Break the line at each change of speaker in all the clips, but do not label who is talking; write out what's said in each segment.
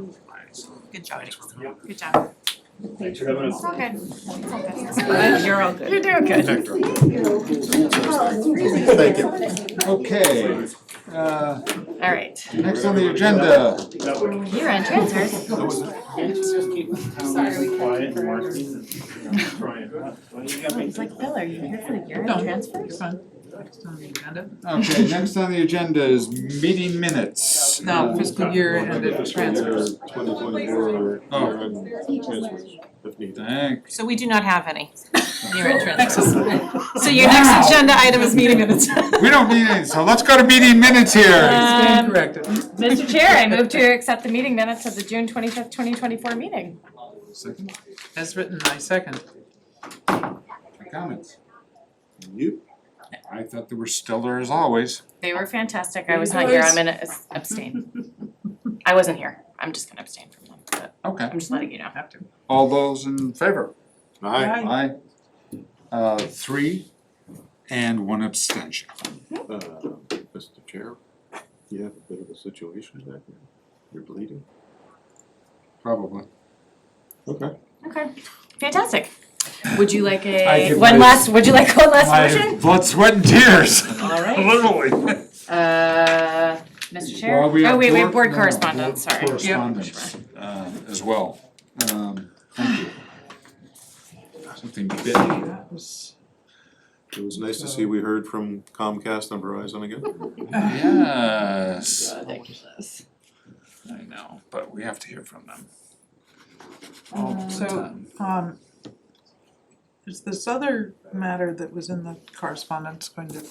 Good job,
Yeah.
Nick. Good job.
Thanks for having us.
It's all good. It's all
But
good.
You're all
You're
good.
doing good.
Thank you. Okay, uh,
All right.
next on the agenda,
That would-
You're on transfers.
Sorry, we
Quiet
can't.
and marketing and try it.
It's like, Bill, are you here for the urine
No.
transfers?
okay, next on the agenda is meeting minutes.
No,
Uh,
fiscal year ended transfers.
Twenty twenty-four,
Oh.
transfers, if needed.
Thanks.
So we do not have any.
You're in transfers.
So your next agenda item is meeting minutes.
We don't need any, so let's go to meeting minutes here.
Um, Mr. Chair, I move to accept the meeting minutes of the June twenty-fifth, twenty twenty-four meeting.
Second,
As written, I second.
comments? You? I thought they were stellar as always.
They were fantastic. I was not here. I'm gonna abs- abstain. I wasn't here. I'm just gonna abstain from them, but
Okay,
I'm just letting you know.
Have to.
all those in favor?
Aye.
Aye. Uh, three and one abstention.
Uh, Mr. Chair, you have a bit of a situation back there. You're bleeding.
Probably.
Okay.
Okay, fantastic. Would you like
I
a,
give
one
this-
last, would you like one last
My
motion?
blood, sweat and tears.
All right.
Literally.
Uh, Mr. Chair?
Well, we
Oh,
have
wait, wait,
board-
board
no,
correspondence,
board
sorry.
Correspondence, uh, as well, um, thank you. Something bit me.
It was nice to see we heard from Comcast and Verizon again.
Yes,
Oh, Ridiculous.
I know, but we have to hear from them all
Um,
the
So,
time.
um, is this other matter that was in the correspondence going to,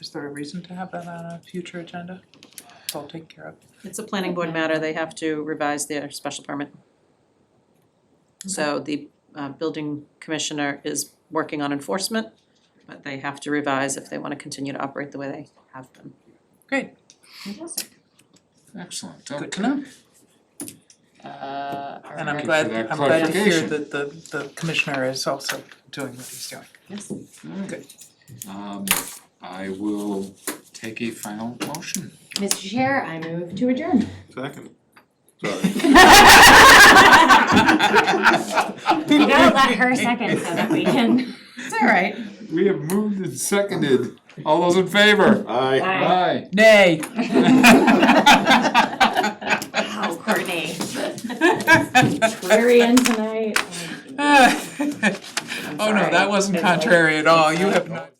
is there a reason to have that on a future agenda? It's all taken care of.
It's a planning board matter, they have to revise their special permit. So the uh building commissioner is working on enforcement, but they have to revise if they wanna continue to operate the way they have been.
Excellent,
Good
okay.
to know.
Uh, all
And I'm
right.
glad,
that
I'm glad to hear
clarification.
that the, the commissioner is also doing what he's doing.
Alright, um, I will take a final motion.
Mr. Chair, I move to adjourn.
Second. Sorry.
You gotta let her second so that we can.
It's all right.
We have moved and seconded, all those in favor?
Aye.
Aye.
Nay.
Wow, Courtney. We're in tonight.
Oh, no, that wasn't contrary at all. You have not.